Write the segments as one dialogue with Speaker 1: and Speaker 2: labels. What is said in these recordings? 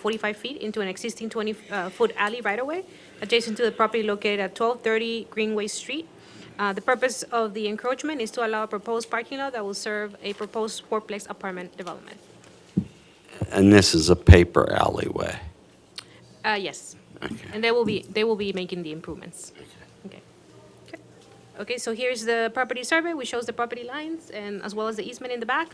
Speaker 1: 45 feet into an existing 20-foot alley right-of-way adjacent to the property located at 1230 Greenway Street. Uh, The purpose of the encroachment is to allow a proposed parking lot that will serve a proposed fourplex apartment development.
Speaker 2: And this is a paper alleyway.
Speaker 1: Uh, Yes.
Speaker 2: Okay.
Speaker 1: And they will be, they will be making the improvements. Okay. Okay. Okay, so here's the property survey, which shows the property lines and as well as the easement in the back.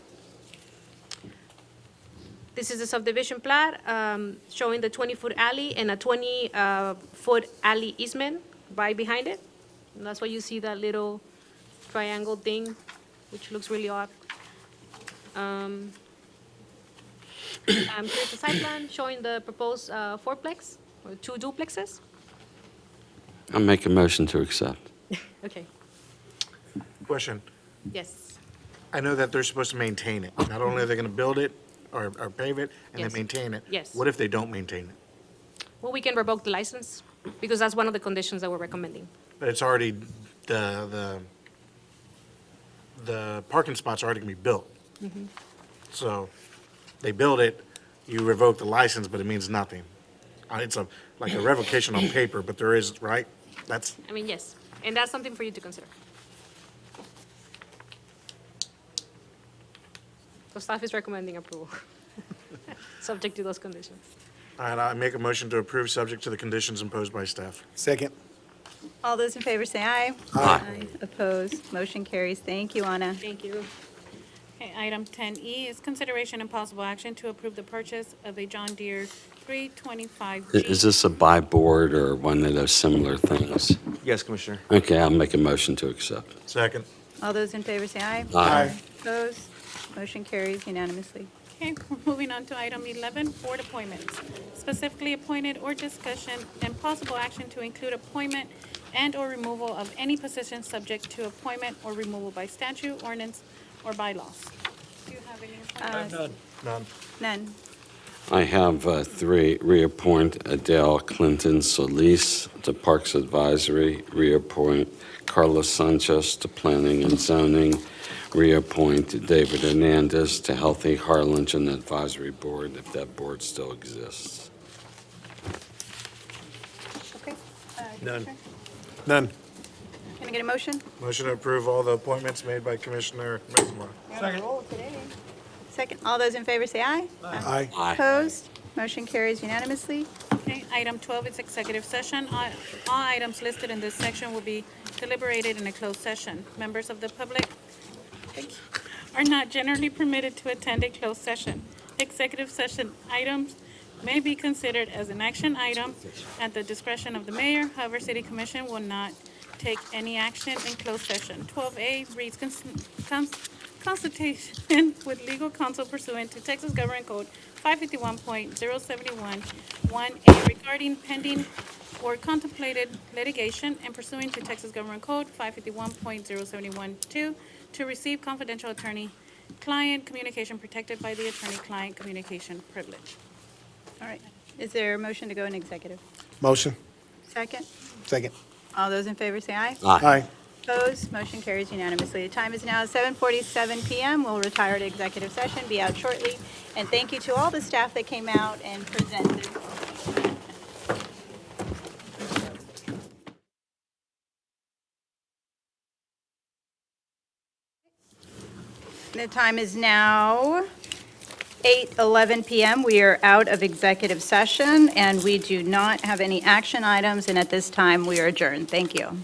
Speaker 1: This is the subdivision plat, um, showing the twenty-foot alley and a twenty-foot alley easement by behind it. And that's why you see that little triangle thing, which looks really odd. Um, um, here's the site plan showing the proposed, uh, fourplex, or two duplexes.
Speaker 2: I make a motion to accept.
Speaker 1: Okay,
Speaker 3: Question.
Speaker 1: yes,
Speaker 3: I know that they're supposed to maintain it. Not only are they going to build it or, or pave it and
Speaker 1: Yes.
Speaker 3: then maintain it.
Speaker 1: Yes.
Speaker 3: What if they don't maintain it?
Speaker 1: well, we can revoke the license, because that's one of the conditions that we're recommending.
Speaker 3: But it's already, the, the, the parking spots are already going to be built.
Speaker 1: Mm-hmm.
Speaker 3: So they build it, you revoke the license, but it means nothing. Uh, It's a, like a revocation on paper, but there is, right? That's,
Speaker 1: I mean, yes, and that's something for you to consider. So staff is recommending approval, subject to those conditions.
Speaker 3: all right, I make a motion to approve subject to the conditions imposed by staff.
Speaker 4: Second.
Speaker 5: All those in favor say aye.
Speaker 2: Aye.
Speaker 5: Opposed, motion carries. Thank you, Anna.
Speaker 1: Thank you.
Speaker 6: Okay, item ten E is consideration and possible action to approve the purchase of a John Deere three twenty-five
Speaker 2: I- Is this a buy board or one of those similar things?
Speaker 7: Yes, Commissioner.
Speaker 2: Okay, I'll make a motion to accept.
Speaker 3: Second.
Speaker 5: All those in favor say aye.
Speaker 2: Aye.
Speaker 5: Opposed, motion carries unanimously.
Speaker 6: Okay, we're moving on to item eleven, board appointments. Specifically appointed or discussion and possible action to include appointment and/or removal of any position subject to appointment or removal by statute, ordinance, or bylaws. Do you have any? appointments?
Speaker 3: None.
Speaker 5: None.
Speaker 2: I have uh, three, reappoint Adele Clinton Solis to Parks Advisory, reappoint Carlos Sanchez to Planning and Zoning, reappoint David Hernandez to Healthy Harlingen Advisory Board, if that board still exists.
Speaker 5: Okay. Uh,
Speaker 4: None.
Speaker 5: Commissioner,
Speaker 4: None.
Speaker 5: Can I get a motion?
Speaker 3: Motion to approve all the appointments made by Commissioner Mesmer.
Speaker 5: Second. Second, all those in favor say aye.
Speaker 4: Aye.
Speaker 5: Opposed, motion carries unanimously.
Speaker 6: Okay, item 12 is executive session. All all items listed in this section will be deliberated in a closed session. Members of the public are not generally permitted to attend a closed session. Executive session items may be considered as an action item at the discretion of the mayor. However, city commission will not take any action in closed session. 12A reads cons- cons- consultation with legal counsel pursuant to Texas Government Code 551.071-1A regarding pending or contemplated litigation and pursuant to Texas Government Code 551.071-2 to receive confidential attorney-client communication protected by the attorney-client communication privilege.
Speaker 5: All right, is there a motion to go in executive?
Speaker 4: Motion.
Speaker 5: Second,
Speaker 4: Second.
Speaker 5: all those in favor say aye.
Speaker 4: Aye.
Speaker 5: Opposed, motion carries unanimously. The time is now 7:47 PM. We'll retire to executive session, be out shortly. And thank you to all the staff that came out and presented. The time is now 8:11 PM. We are out of executive session, and we do not have any action items, and at this time, we are adjourned. Thank you.